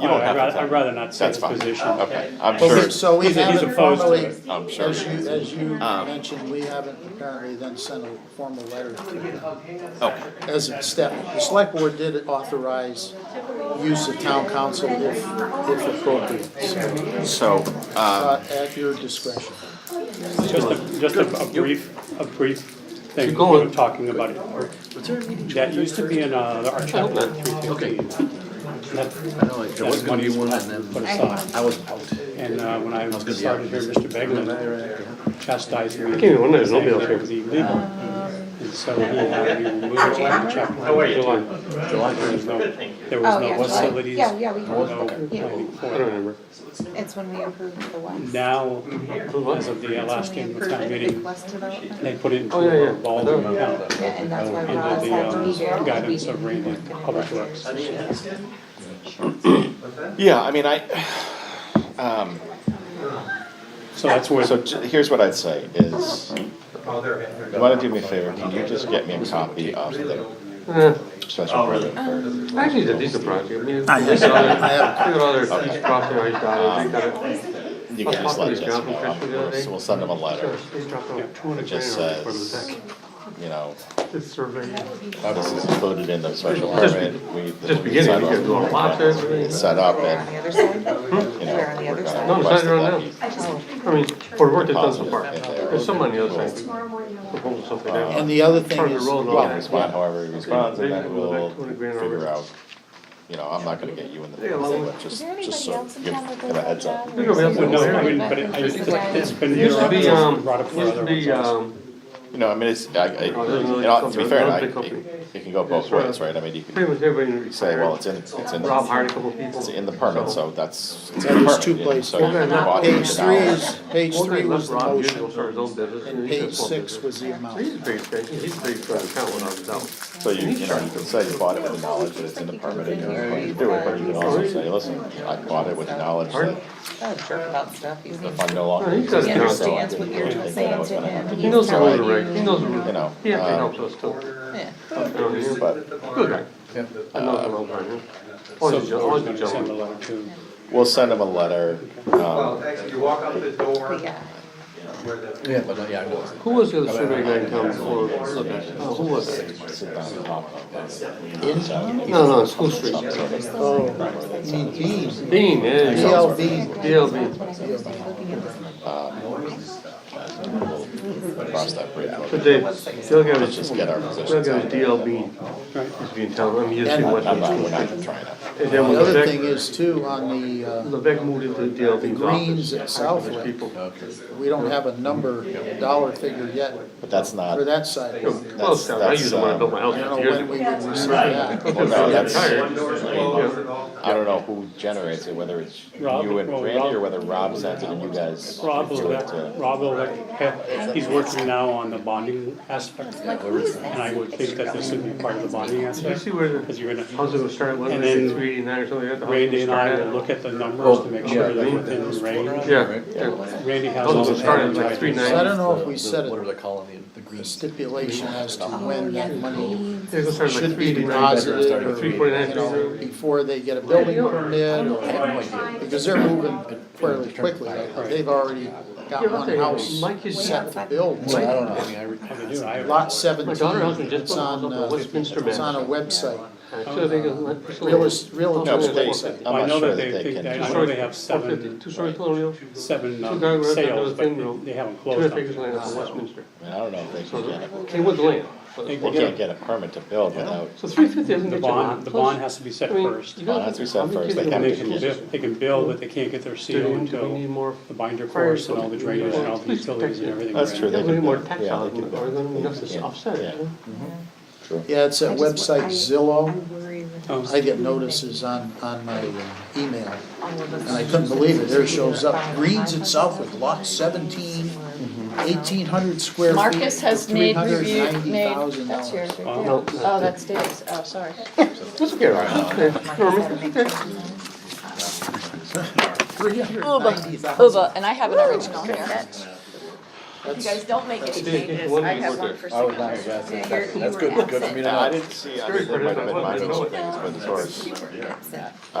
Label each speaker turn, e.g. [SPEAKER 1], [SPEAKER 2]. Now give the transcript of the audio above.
[SPEAKER 1] You don't
[SPEAKER 2] I'd
[SPEAKER 1] have to
[SPEAKER 2] rather-
[SPEAKER 1] tell
[SPEAKER 2] I'd
[SPEAKER 1] me.
[SPEAKER 2] rather not say
[SPEAKER 1] That's
[SPEAKER 2] his
[SPEAKER 1] fine.
[SPEAKER 2] position.
[SPEAKER 1] Okay, I'm
[SPEAKER 3] But we-
[SPEAKER 1] sure,
[SPEAKER 3] So we
[SPEAKER 2] He's- he's
[SPEAKER 3] haven't
[SPEAKER 2] opposed to
[SPEAKER 3] formally,
[SPEAKER 2] it.
[SPEAKER 1] I'm sure.
[SPEAKER 3] as you, as you
[SPEAKER 1] Um,
[SPEAKER 3] mentioned, we haven't apparently then sent a formal letter to them
[SPEAKER 1] Okay,
[SPEAKER 3] as a step. The select board did authorize use of town council if, if appropriate, so,
[SPEAKER 1] so, um,
[SPEAKER 3] uh, at your discretion.
[SPEAKER 2] Just a, just a a brief, a brief thing, you
[SPEAKER 4] Keep going.
[SPEAKER 2] know, talking about it. or- That used to be in, uh, the- our chapter three
[SPEAKER 4] Okay.
[SPEAKER 2] fifteen.
[SPEAKER 4] I know, there was gonna be one and
[SPEAKER 2] Put
[SPEAKER 4] then
[SPEAKER 2] aside,
[SPEAKER 4] I was out.
[SPEAKER 2] and, uh, when I
[SPEAKER 4] gonna be
[SPEAKER 2] started here, Mr. Beglin chastised me.
[SPEAKER 5] even wonder there's nobody else
[SPEAKER 2] It was illegal, and so he had me removed from the chapter.
[SPEAKER 4] July
[SPEAKER 2] There was
[SPEAKER 4] first.
[SPEAKER 2] no, there
[SPEAKER 6] Oh,
[SPEAKER 2] was
[SPEAKER 6] yeah,
[SPEAKER 2] no
[SPEAKER 6] July.
[SPEAKER 2] facilities,
[SPEAKER 6] Yeah, yeah, we-
[SPEAKER 2] no
[SPEAKER 6] yeah.
[SPEAKER 2] planning for
[SPEAKER 5] I
[SPEAKER 2] it.
[SPEAKER 5] don't remember.
[SPEAKER 6] It's when we approved the West.
[SPEAKER 2] Now, as of the uh, last
[SPEAKER 6] When we
[SPEAKER 2] annual
[SPEAKER 6] approved
[SPEAKER 2] town
[SPEAKER 6] the big
[SPEAKER 2] meeting,
[SPEAKER 6] West development.
[SPEAKER 2] they put it into
[SPEAKER 5] Oh, yeah, yeah.
[SPEAKER 2] a revolving account.
[SPEAKER 6] Yeah, And that's why Roz had to
[SPEAKER 2] under
[SPEAKER 6] be
[SPEAKER 2] the
[SPEAKER 6] here.
[SPEAKER 2] um, guidance of
[SPEAKER 6] We
[SPEAKER 2] Randy
[SPEAKER 6] didn't work
[SPEAKER 2] Public Works.
[SPEAKER 1] yeah, I mean, I, um,
[SPEAKER 2] So that's where,
[SPEAKER 1] so j- here's what I'd say is, you wanna do me a favor, can you just get me a copy of the
[SPEAKER 5] Eh,
[SPEAKER 1] special permit?
[SPEAKER 5] Actually, it's a decent project, I mean,
[SPEAKER 3] I
[SPEAKER 5] look at all their,
[SPEAKER 3] I have-
[SPEAKER 5] look at all their crossing I dotted, they got
[SPEAKER 1] Um,
[SPEAKER 5] it.
[SPEAKER 1] You can just let Jessica know,
[SPEAKER 5] Just-
[SPEAKER 1] so we'll send them a letter,
[SPEAKER 5] They dropped over two hundred
[SPEAKER 1] uh, just
[SPEAKER 5] grand on it for the
[SPEAKER 1] says- you know, oh,
[SPEAKER 5] deck, this survey.
[SPEAKER 1] this is included in the special permit, we.
[SPEAKER 5] Just beginning, you gotta do all the lots and everything.
[SPEAKER 1] Set up
[SPEAKER 6] We're on the
[SPEAKER 1] and,
[SPEAKER 6] other
[SPEAKER 1] you
[SPEAKER 6] side. We're
[SPEAKER 1] know,
[SPEAKER 6] on the
[SPEAKER 1] we're
[SPEAKER 6] other
[SPEAKER 1] gonna
[SPEAKER 5] No,
[SPEAKER 6] side.
[SPEAKER 5] it's
[SPEAKER 1] request
[SPEAKER 5] not
[SPEAKER 1] that
[SPEAKER 5] right
[SPEAKER 1] that
[SPEAKER 5] now.
[SPEAKER 1] be
[SPEAKER 6] Oh,
[SPEAKER 5] I mean, for the work they've done so far,
[SPEAKER 1] Positive.
[SPEAKER 5] there's some on the other side,
[SPEAKER 7] Tomorrow morning, I'll-
[SPEAKER 5] proposal something there.
[SPEAKER 1] Um,
[SPEAKER 3] And the other thing
[SPEAKER 5] Part of the
[SPEAKER 3] is,
[SPEAKER 5] road,
[SPEAKER 1] Well,
[SPEAKER 5] Yeah.
[SPEAKER 1] respond however he responds, and then we'll figure out, you know, I'm not gonna get you in the,
[SPEAKER 5] Yeah, well,
[SPEAKER 1] but just, just so, give, give a heads up.
[SPEAKER 5] Think of it as a
[SPEAKER 2] well, no, I
[SPEAKER 5] area.
[SPEAKER 2] mean, but it- I- it's been.
[SPEAKER 5] It used to be, um,
[SPEAKER 2] brought up
[SPEAKER 5] it
[SPEAKER 2] for
[SPEAKER 5] used to
[SPEAKER 2] other
[SPEAKER 5] be,
[SPEAKER 2] ones also.
[SPEAKER 5] um,
[SPEAKER 1] You know, I mean, it's, I, I, you
[SPEAKER 5] Oh, there's another
[SPEAKER 1] know, to be
[SPEAKER 5] company,
[SPEAKER 1] fair, I,
[SPEAKER 5] another big company.
[SPEAKER 1] it it can go both
[SPEAKER 5] right.
[SPEAKER 1] ways, right, I mean, you
[SPEAKER 5] pretty
[SPEAKER 1] can
[SPEAKER 5] much everybody.
[SPEAKER 1] say, well, it's in, it's in,
[SPEAKER 5] Rob
[SPEAKER 1] the-
[SPEAKER 5] hired a couple people.
[SPEAKER 1] it's in the permit, so that's, it's in
[SPEAKER 3] There's
[SPEAKER 1] the permit,
[SPEAKER 3] two
[SPEAKER 1] you know, so.
[SPEAKER 3] places.
[SPEAKER 1] you can walk in
[SPEAKER 3] page
[SPEAKER 1] and
[SPEAKER 3] three
[SPEAKER 1] out.
[SPEAKER 3] is, page three was the
[SPEAKER 5] Rob usually
[SPEAKER 3] motion,
[SPEAKER 5] started his own business.
[SPEAKER 3] and
[SPEAKER 5] he did
[SPEAKER 3] page
[SPEAKER 5] small
[SPEAKER 3] six
[SPEAKER 5] business.
[SPEAKER 3] was the
[SPEAKER 5] He's a
[SPEAKER 3] amount.
[SPEAKER 5] pretty, he's a pretty good account when I was out.
[SPEAKER 1] So you, you know, you can say you bought it with the knowledge that it's in the permit, and you know, you do it, but you can also say, listen, I bought it with the knowledge that
[SPEAKER 6] that jerk about stuff. He's-
[SPEAKER 1] if I'm no longer.
[SPEAKER 5] No, he's got
[SPEAKER 1] existing,
[SPEAKER 6] He
[SPEAKER 5] Yeah,
[SPEAKER 1] so I
[SPEAKER 6] understands
[SPEAKER 1] didn't
[SPEAKER 6] what
[SPEAKER 1] do
[SPEAKER 6] you're
[SPEAKER 1] anything that I
[SPEAKER 6] saying
[SPEAKER 1] was
[SPEAKER 6] to
[SPEAKER 1] gonna do.
[SPEAKER 6] him.
[SPEAKER 5] He knows the
[SPEAKER 6] telling
[SPEAKER 5] road already, he
[SPEAKER 6] you-
[SPEAKER 5] knows the road.
[SPEAKER 1] You know,
[SPEAKER 5] He actually
[SPEAKER 1] um,
[SPEAKER 5] helps us too.
[SPEAKER 6] Yeah.
[SPEAKER 5] Down here.
[SPEAKER 1] But um,
[SPEAKER 5] Good guy. I know him over here.
[SPEAKER 2] So
[SPEAKER 5] Always a gen-
[SPEAKER 2] we're
[SPEAKER 5] always a
[SPEAKER 2] gonna send a
[SPEAKER 5] gentleman.
[SPEAKER 2] letter to,
[SPEAKER 1] we'll send him a letter, um,
[SPEAKER 8] Well, actually, you walk out the door
[SPEAKER 6] We got-
[SPEAKER 8] where the
[SPEAKER 4] Yeah, but, uh, yeah, I know. it's-
[SPEAKER 5] Who was the other survey guy in town before? Oh, who was it?
[SPEAKER 1] sit down and talk about this.
[SPEAKER 5] No, no, School Street.
[SPEAKER 3] Oh, you mean Dean,
[SPEAKER 5] Dean, yeah. yeah.
[SPEAKER 3] DLV.
[SPEAKER 5] DLB.
[SPEAKER 1] Cross that bridge.
[SPEAKER 5] But they, the other guy was,
[SPEAKER 1] Just
[SPEAKER 5] the
[SPEAKER 1] get our
[SPEAKER 5] other
[SPEAKER 1] positions
[SPEAKER 5] guy
[SPEAKER 1] out.
[SPEAKER 5] was DLB.
[SPEAKER 2] right,
[SPEAKER 5] He's being town, I mean, he's
[SPEAKER 3] And-
[SPEAKER 5] in
[SPEAKER 1] I'm not, we're
[SPEAKER 5] Westwood.
[SPEAKER 1] not trying to.
[SPEAKER 5] And then
[SPEAKER 3] The
[SPEAKER 5] when
[SPEAKER 3] other thing
[SPEAKER 5] Levesque,
[SPEAKER 3] is too, on the, uh,
[SPEAKER 5] Levesque moved into DLB's
[SPEAKER 3] greens at
[SPEAKER 5] office.
[SPEAKER 3] Southwick.
[SPEAKER 5] People.
[SPEAKER 3] We don't have a number, dollar figure yet
[SPEAKER 1] But that's not,
[SPEAKER 3] for that site.
[SPEAKER 5] No,
[SPEAKER 3] I
[SPEAKER 5] Well, it's down. I
[SPEAKER 1] that's,
[SPEAKER 5] used it when I
[SPEAKER 1] um,
[SPEAKER 5] built my house
[SPEAKER 3] don't
[SPEAKER 5] fifty
[SPEAKER 3] know
[SPEAKER 5] years
[SPEAKER 3] when we
[SPEAKER 5] ago.
[SPEAKER 3] would receive that.
[SPEAKER 1] well, no, that's,
[SPEAKER 5] Tired.
[SPEAKER 1] I don't know who generates it, whether it's
[SPEAKER 2] Rob,
[SPEAKER 1] you and
[SPEAKER 2] well,
[SPEAKER 1] Randy or
[SPEAKER 2] Rob-
[SPEAKER 1] whether Rob sends it and you guys.
[SPEAKER 2] Rob
[SPEAKER 1] do it, uh,
[SPEAKER 2] Levec, Rob Levec, he's working now on the bonding aspect. And I would think that this would be part of the bonding
[SPEAKER 5] You
[SPEAKER 2] aspect,
[SPEAKER 5] see where the
[SPEAKER 2] because you're gonna,
[SPEAKER 5] house was started,
[SPEAKER 2] And
[SPEAKER 5] wasn't
[SPEAKER 2] then
[SPEAKER 5] it, three eighty-nine or something like that? The house
[SPEAKER 2] Randy
[SPEAKER 5] was
[SPEAKER 2] and I
[SPEAKER 5] started-
[SPEAKER 2] will look at the numbers to make sure that
[SPEAKER 5] Oh, yeah.
[SPEAKER 2] within range.
[SPEAKER 5] Yeah, Oh, yeah.
[SPEAKER 2] Randy has all
[SPEAKER 5] Those
[SPEAKER 2] the.
[SPEAKER 5] were started like three
[SPEAKER 3] So I
[SPEAKER 5] ninety.
[SPEAKER 3] don't know if we set
[SPEAKER 4] What are
[SPEAKER 3] a
[SPEAKER 4] they calling the, the green?
[SPEAKER 3] stipulation as to
[SPEAKER 6] Oh,
[SPEAKER 3] when
[SPEAKER 6] yeah,
[SPEAKER 3] that money
[SPEAKER 5] They was started like
[SPEAKER 3] should
[SPEAKER 5] three
[SPEAKER 3] be
[SPEAKER 5] eighty-nine.
[SPEAKER 3] deposited
[SPEAKER 4] started
[SPEAKER 3] or, you
[SPEAKER 4] at
[SPEAKER 5] 349.
[SPEAKER 3] know, before they get a building permit or, because they're moving fairly quickly. They've already got one house
[SPEAKER 5] Mike is-
[SPEAKER 3] set to build.
[SPEAKER 4] So I don't know, I mean, I. re-
[SPEAKER 2] How to do it. I-
[SPEAKER 3] Lot
[SPEAKER 5] My
[SPEAKER 3] seventeen,
[SPEAKER 5] daughter husband just
[SPEAKER 3] it's
[SPEAKER 5] put a house
[SPEAKER 3] on,
[SPEAKER 5] up on
[SPEAKER 3] uh,
[SPEAKER 5] Westminster
[SPEAKER 3] it's on a
[SPEAKER 5] Manor.
[SPEAKER 3] website.
[SPEAKER 5] So they got like-
[SPEAKER 3] Real, est- real
[SPEAKER 5] No,
[SPEAKER 3] estate
[SPEAKER 5] but they-
[SPEAKER 3] website.
[SPEAKER 1] I'm
[SPEAKER 2] I
[SPEAKER 1] not
[SPEAKER 2] know
[SPEAKER 1] sure
[SPEAKER 2] that they, think that- I
[SPEAKER 5] Two
[SPEAKER 2] know
[SPEAKER 5] stories,
[SPEAKER 2] they have seven,
[SPEAKER 5] Two-story colonial,
[SPEAKER 2] seven
[SPEAKER 5] Two
[SPEAKER 2] um,
[SPEAKER 5] guy rooms, another
[SPEAKER 2] sales, but
[SPEAKER 5] thin room.
[SPEAKER 2] they haven't
[SPEAKER 5] two
[SPEAKER 2] closed
[SPEAKER 5] hundred
[SPEAKER 2] on
[SPEAKER 5] acres
[SPEAKER 2] it.
[SPEAKER 5] of land up on Westminster.
[SPEAKER 1] I mean, I don't know if they can get it.
[SPEAKER 5] They would land.
[SPEAKER 2] They
[SPEAKER 1] They
[SPEAKER 2] can
[SPEAKER 1] can't
[SPEAKER 2] get it.
[SPEAKER 1] get a permit to build without,
[SPEAKER 5] So three fifty isn't
[SPEAKER 2] The
[SPEAKER 5] get you a lot.
[SPEAKER 2] bond, the bond has to be set
[SPEAKER 5] I mean,
[SPEAKER 2] first.
[SPEAKER 5] you
[SPEAKER 1] Bond
[SPEAKER 5] gotta
[SPEAKER 1] has to be
[SPEAKER 5] think,
[SPEAKER 1] set
[SPEAKER 5] how many
[SPEAKER 1] first. They
[SPEAKER 5] kids
[SPEAKER 2] And
[SPEAKER 1] have
[SPEAKER 5] do
[SPEAKER 2] they
[SPEAKER 1] to
[SPEAKER 5] we
[SPEAKER 2] can,
[SPEAKER 5] need?
[SPEAKER 1] condition.
[SPEAKER 2] build- they can build, but they can't get their
[SPEAKER 5] Do
[SPEAKER 2] CO
[SPEAKER 5] we- do we need
[SPEAKER 2] until
[SPEAKER 5] more?
[SPEAKER 2] the binder
[SPEAKER 5] fire
[SPEAKER 2] course and all the drainage and all the
[SPEAKER 5] Please
[SPEAKER 2] utilities and
[SPEAKER 5] protect
[SPEAKER 2] everything.
[SPEAKER 5] it.
[SPEAKER 1] That's true,
[SPEAKER 2] right?
[SPEAKER 1] they
[SPEAKER 5] We're gonna
[SPEAKER 1] can
[SPEAKER 5] need more
[SPEAKER 1] build,
[SPEAKER 5] tax
[SPEAKER 1] yeah, they
[SPEAKER 5] dollars,
[SPEAKER 1] can
[SPEAKER 5] or we're
[SPEAKER 1] build.
[SPEAKER 5] gonna have to offset
[SPEAKER 1] Yeah.
[SPEAKER 5] it. you
[SPEAKER 1] True.
[SPEAKER 3] Yeah, it's
[SPEAKER 6] I
[SPEAKER 3] at
[SPEAKER 6] just- I-
[SPEAKER 3] website Zillow.
[SPEAKER 6] I'm worried with
[SPEAKER 2] Um,
[SPEAKER 3] I get notices on, on my uh, email,
[SPEAKER 6] all of us.
[SPEAKER 3] and I couldn't believe it, there shows up, Greens itself with lot 17,
[SPEAKER 6] Mm-hmm.
[SPEAKER 3] 1,800 square feet.
[SPEAKER 9] Marcus has
[SPEAKER 3] for
[SPEAKER 9] made review, made,
[SPEAKER 3] $390,000.
[SPEAKER 9] that's yours right there.
[SPEAKER 2] Oh,
[SPEAKER 9] Oh, that's Dave's, oh, sorry.
[SPEAKER 5] know? That's okay, Ryan. Okay. Norman, okay.
[SPEAKER 9] Uba, and I have an original here.
[SPEAKER 3] That's-
[SPEAKER 9] don't make any
[SPEAKER 5] changes, I have one
[SPEAKER 9] for
[SPEAKER 4] I was not, that's, that's good, good for me to know.
[SPEAKER 1] Yeah, I didn't see, I mean, there might have been minor things, but as far as